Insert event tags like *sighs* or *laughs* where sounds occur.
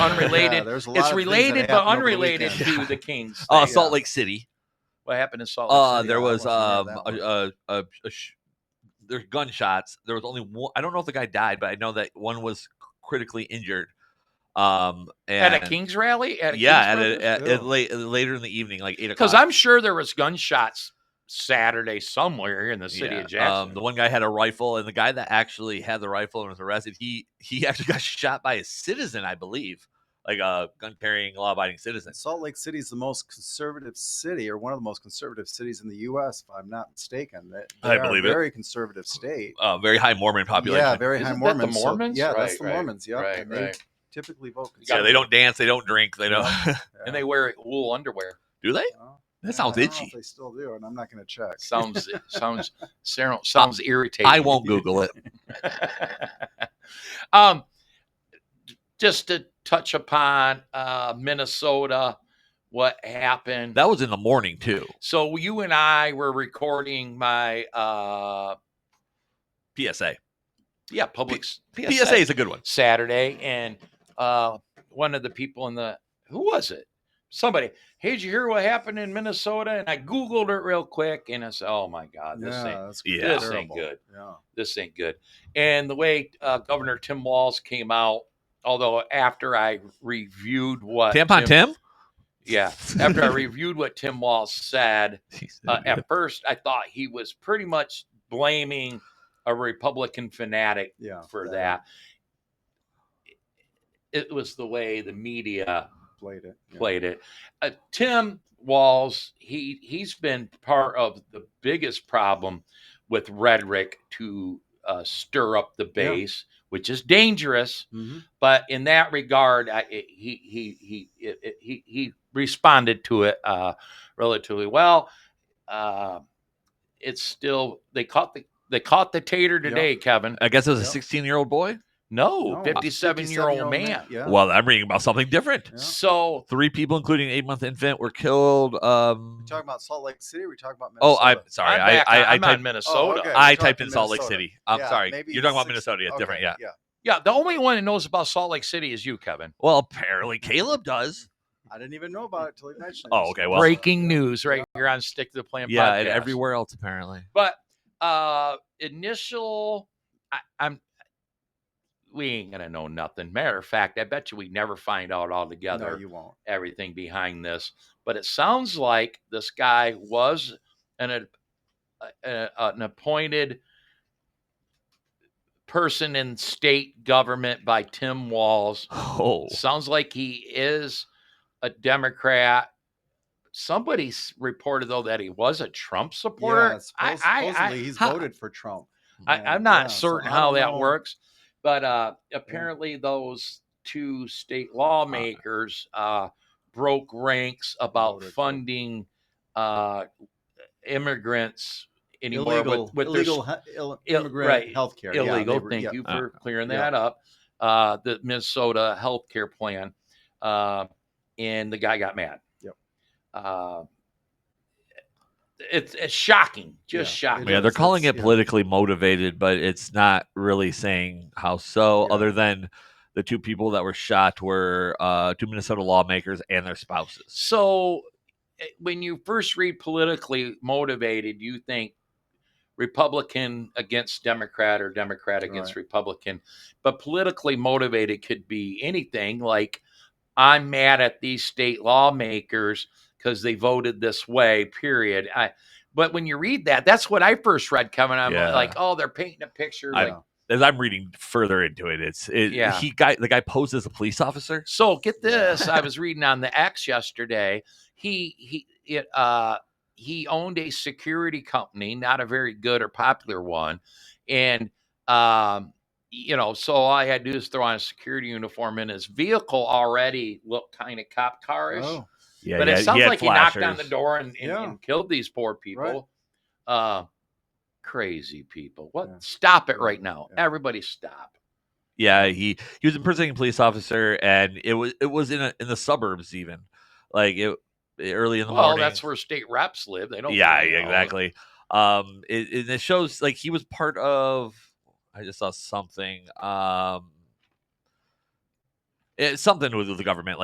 *laughs* unrelated. there's a lot it's of things that related but happen over the unrelated weekend. to the Kings. Uh, thing. Salt Lake City. What happened in Salt Lake? Uh, City, there I was um, wasn't a, here a, a, a sh- there's gunshots. There was only one. I don't know if the guy died, but I know that one was critically injured. Um, and at a Kings rally? At a yeah, at, Kings a, protest? at, Yeah. at late, later in the evening, like eight o'clock. Because I'm sure there was gunshots Saturday somewhere here in the city Yeah, um, of Jackson. the one guy had a rifle, and the guy that actually had the rifle and was arrested, he he *laughs* actually got shot by a citizen, I believe, like a gun carrying, law abiding citizen. And Salt Lake City is the most conservative city, or one of the most conservative cities in the U.S. If I'm not mistaken, that I they are believe it. a very conservative state. Uh, very high Mormon population. Yeah, very high Isn't that the Mormons. so- Mormons? yeah, that's Right, the right, Mormons. Yeah, right, and they right. typically vote. You gotta yeah, they don't dance, they don't drink, they don't. *laughs* and they wear wool underwear. Do they? That sounds itchy. They still do, and I'm not going to check. Sounds sounds sounds- sounds irritating. I won't Google it. *laughs* um, just to touch upon uh, Minnesota, what happened? That was in the morning too. so you and I were recording my uh, PSA. yeah public s- PSA, is a good one. Saturday, and uh, one of the people in the who was it? Somebody, hey, did you hear what happened in Minnesota? And I googled it real quick, and I said, oh my god, this yeah, thing. that's Yeah. this ain't terrible. good. Yeah. This ain't good. And the way uh, Governor Tim Walz came out, although after I reviewed what Tampon Uh, Tim. *laughs* yeah, after I reviewed what Tim Walz said, uh, at first I thought he was pretty much blaming a Republican fanatic Yeah. for that. It was the way the media Played it. yeah. played it. Uh, Tim Walls, he he's been part of the biggest problem with rhetoric to uh, stir up the Yeah. base, which is dangerous. Mhm. But in that regard, I, it- he he he it, it- he he responded to it uh, relatively well. Uh, it's still they caught the they caught the tater Yeah. today, Kevin. I guess it was a Yeah. 16 year old boy. No, No, 57 year 57-year-old old man. Yeah. Well, I'm reading about something different. yeah. So Three people, including an eight month infant, were killed. Um, We're talking about Salt Lake City. We're talking about oh, Minnesota. I'm sorry. I'm, I, back I, on, I I'm on Oh, typed, Minnesota. okay. I You're typed talking in Salt Lake Minnesota. City. I'm Yeah, sorry. maybe You're talking about six- Minnesota. It's okay, different. Yeah. Yeah. Yeah, the only one that knows about Salt Lake City is you, Kevin. Well, apparently Caleb does. *laughs* I didn't even know about it till he mentioned. it. Oh, okay, well- Breaking news right here on Stick to the Plan. Yeah, and podcast. everywhere else apparently. *sighs* But uh initial, I, I'm. We ain't gonna know nothing. Matter of fact, I bet you we never find out altogether No, you won't. everything behind this. But it sounds like this guy was an a, a, an appointed person in state government by Tim Walls. Oh, Sounds like he is a Democrat. Somebody s- reported though that he was a Trump supporter. Yeah, suppose- I, I, supposedly he's how- voted for Trump. and, I, am not yeah, so certain I how don't that know. works, but uh, apparently those two Uh, state lawmakers uh, broke ranks about Voted for- funding uh, immigrants anymore Illegal, with, with their *laughs* illegal he- ill- ill- immigrant right, health care. illegal. Thank you uh, for clearing yeah. that up. Uh, the Minnesota health care plan, uh, and the guy got mad. Yep. Uh, it's, it's shocking, just Yeah, it shocking. yeah, they're is, calling it's- it yeah. politically motivated, but it's not really saying how so, Yeah. other than the two people that were shot were uh, two Minnesota lawmakers and their spouses. So, eh, when you first read politically motivated, you think Republican against Democrat or Democrat against Republican. But politically motivated could be anything like I'm mad at these state lawmakers because they voted this way, period. I, but when you read that, that's what I first read, Kevin. I'm Yeah. like, oh, they're painting a picture. I- like, As I'm reading further into it, it's it, Yeah. he guy the guy posed as a police officer. So get Yeah. this. I was reading on the X yesterday. He he it uh he owned a security company, not a very good or popular one. And um you know, so all I had to do is throw on a security uniform and his vehicle already looked kind of cop carish. Oh, Yeah, but yeah, it sounds had like he knocked on the flashers. door and, and, Yeah. and killed these poor people. Uh crazy people. What Yeah. stop it right now. Yeah. Everybody stop. Yeah, he he was impersonating a police officer, and it was it was in a, in the suburbs even, like it early in the Well, morning. that's where state reps live. They don't yeah, really yeah, know. exactly. Um, it, it- it shows like he was part of. I just saw something. Um, It's something with, with the government, like.